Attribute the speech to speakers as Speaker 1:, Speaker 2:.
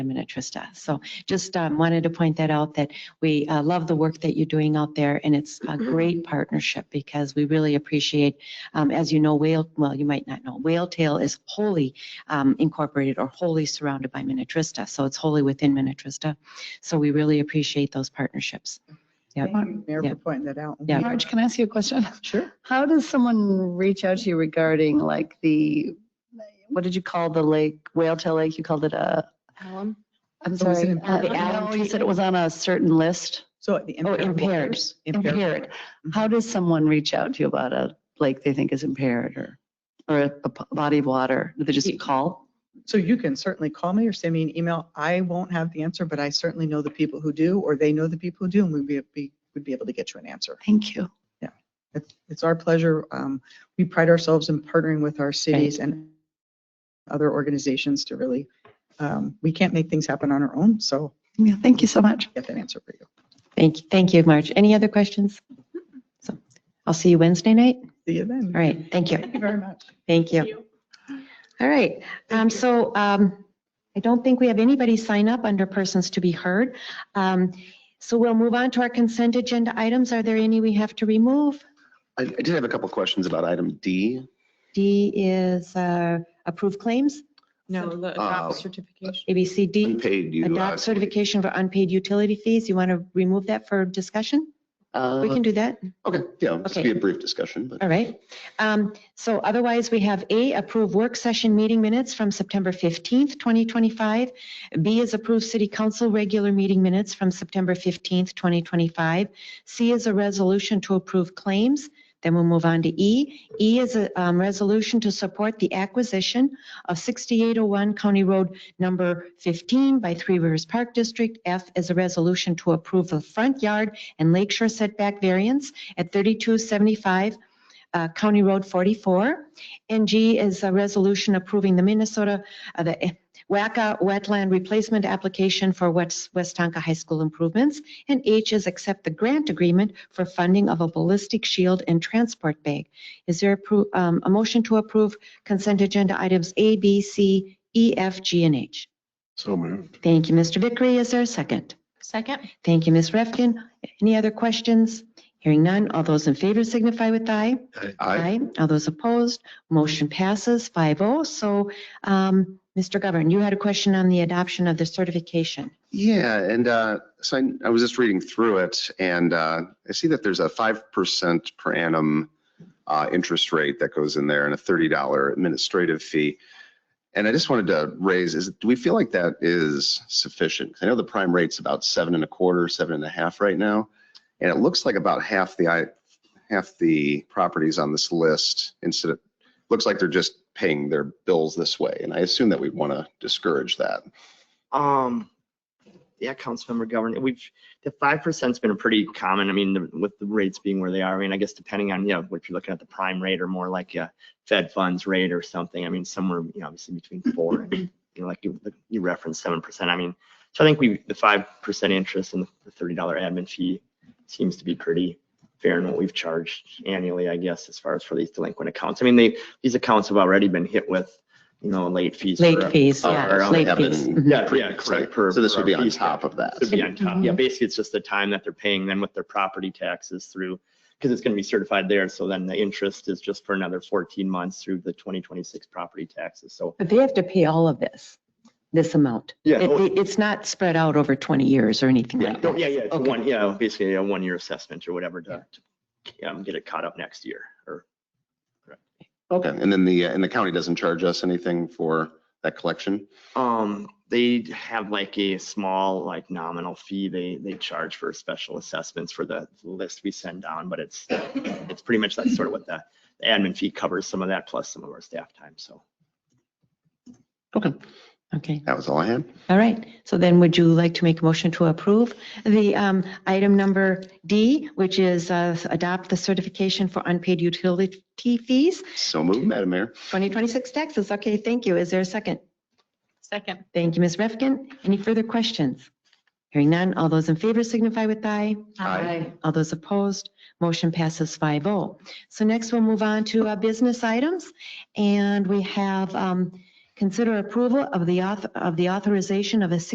Speaker 1: I'm in a Trista. So just um, wanted to point that out, that we uh, love the work that you're doing out there, and it's a
Speaker 2: Mm-hmm.
Speaker 1: great partnership because we really appreciate, um, as you know, Whale, well, you might not know, Whale Tail is wholly um, incorporated or wholly surrounded by Minnetrista, so it's wholly within Minnetrista. So we really appreciate those partnerships. Yep.
Speaker 3: Thank you, Mayor,
Speaker 1: Yeah.
Speaker 3: for pointing that out.
Speaker 1: Yeah.
Speaker 2: Marge, can I ask you a question?
Speaker 3: Sure.
Speaker 2: How does someone reach out to you regarding like the, what did you call the lake, Whale Tail Lake? You called it a,
Speaker 4: Alum?
Speaker 2: I'm
Speaker 3: Oh, is it
Speaker 2: sorry.
Speaker 3: impaired?
Speaker 2: uh, No, you said it was on a certain list.
Speaker 3: So the
Speaker 2: Oh,
Speaker 3: impaired.
Speaker 2: impaired,
Speaker 3: waters-
Speaker 2: impaired. How does someone reach out to you about a lake they think is impaired or, or a p- body of water? Do they just call?
Speaker 3: So you can certainly call me or send me an email. I won't have the answer, but I certainly know the people who do, or they know the people who do, and we'd be- be, we'd be able to get you an answer.
Speaker 2: Thank you.
Speaker 3: It's, it's our pleasure. Um, We pride ourselves in partnering with our cities and other organizations to really, um, we can't make things happen on our own, so
Speaker 2: Yeah, thank you so much.
Speaker 3: get that answer for you.
Speaker 1: Thank, you, thank you, Marge. Any other questions?
Speaker 2: Mm-hmm.
Speaker 1: So I'll see you Wednesday night.
Speaker 3: See you then.
Speaker 1: All right, thank you.
Speaker 3: Thank you very much.
Speaker 1: Thank you. All right, um, so, um, I don't think we have anybody sign up under persons to be heard. Um, so we'll move on to our consent agenda items. Are there any we have to remove?
Speaker 5: I I did have a couple questions about item D.
Speaker 1: D is, uh, approve claims,
Speaker 4: No, the um,
Speaker 5: Uh,
Speaker 4: adopt certification.
Speaker 1: ABCD,
Speaker 5: Unpaid you.
Speaker 1: adopt certification for unpaid utility fees. You want to remove that for discussion?
Speaker 2: Uh,
Speaker 1: We can do that.
Speaker 5: Okay, yeah, this
Speaker 1: Okay.
Speaker 5: be a brief discussion, but
Speaker 1: All right. Um, So otherwise, we have A, approve work session meeting minutes from September 15th, 2025. B is approve city council regular meeting minutes from September 15th, 2025. C is a resolution to approve claims. Then we'll move on to E. E is a um, resolution to support the acquisition of 6801 County Road Number 15 by Three Rivers Park District. F is a resolution to approve the front yard and lakeshore setback variance at 3275 uh, County Road 44. And G is a resolution approving the Minnesota, uh, the eh, WACA wetland replacement application for West, West Tonka High School improvements. And H is accept the grant agreement for funding of a ballistic shield and transport bag. Is there appro- um, a motion to approve consent agenda items A, B, C, E, F, G, and H?
Speaker 5: So moved.
Speaker 1: Thank you, Mr. Vickery. Is there a second?
Speaker 4: Second?
Speaker 1: Thank you, Ms. Refkin. Any other questions? Hearing none. All those in favor signify with aye.
Speaker 5: Aye.
Speaker 1: All those opposed, motion passes 5-0. So, um, Mr. Govern, you had a question on the adoption of the certification.
Speaker 5: Yeah, and uh, so I- I was just reading through it and uh, I see that there's a 5% per annum uh, interest rate that goes in there and a $30 administrative fee. And I just wanted to raise, is, do we feel like that is sufficient? 'Cause I know the prime rate's about seven and a quarter, seven and a half right now. And it looks like about half the, i- half the properties on this list instead of, looks like they're just paying their bills this way. And I assume that we want to discourage that.
Speaker 6: Um, yeah, Councilmember Governor, we've, the five percent's been pretty common. I mean, the- with the rates being where they are, I mean, I guess depending on, you know, if you're looking at the prime rate or more like a Fed funds rate or something, I mean, somewhere, you know, obviously between four and, you know, like you, you referenced seven percent. I mean, so I think we, the five percent interest and the thirty dollar admin fee seems to be pretty fair in what we've charged annually, I guess, as far as for these delinquent accounts. I mean, they, these accounts have already been hit with, you know, late fees.
Speaker 1: Late
Speaker 6: for-
Speaker 1: fees,
Speaker 6: Oh,
Speaker 1: yeah,
Speaker 6: or
Speaker 5: around
Speaker 1: late
Speaker 5: heaven.
Speaker 1: fees. Mhm.
Speaker 6: Yeah, yeah, correct. per-
Speaker 5: So this would be
Speaker 6: per
Speaker 5: on
Speaker 6: piece, yeah.
Speaker 5: top of that.
Speaker 6: This would be on top.
Speaker 1: Mhm.
Speaker 6: Yeah, basically, it's just the time that they're paying then with their property taxes through, because it's going to be certified there. So then the interest is just for another 14 months through the 2026 property taxes. So
Speaker 1: Mm-hmm. But they have to pay all of this, this amount.
Speaker 6: yeah,
Speaker 1: It-
Speaker 6: no-
Speaker 1: it- It's not spread out over 20 years or anything
Speaker 6: yeah,
Speaker 1: like
Speaker 6: no,
Speaker 1: that.
Speaker 6: yeah, yeah. it's a
Speaker 1: Okay.
Speaker 6: one, yeah, basically a one-year assessment or whatever to to, um, get it caught up next year or
Speaker 5: Okay, and then the, uh, and the county doesn't charge us anything for that collection?
Speaker 6: Um, they have like a small, like nominal fee they, they charge for special assessments for the list we send down, but it's, it's pretty much that's sort of what the the admin fee covers, some of that plus some of our staff time, so.
Speaker 5: Okay.
Speaker 1: Okay,
Speaker 5: That was all I had.
Speaker 1: all right. So then would you like to make a motion to approve the um, item number D, which is uh, adopt the certification for unpaid utility fees,
Speaker 5: So moved, Madam Mayor.
Speaker 1: 2026 taxes? Okay, thank you. Is there a second?
Speaker 4: Second.
Speaker 1: Thank you, Ms. Refkin. Any further questions? Hearing none, all those in favor signify with aye.
Speaker 5: Aye.
Speaker 1: All those opposed, motion passes 5-0. So next we'll move on to uh, business items. And we have um, consider approval of the auth, of the authorization of a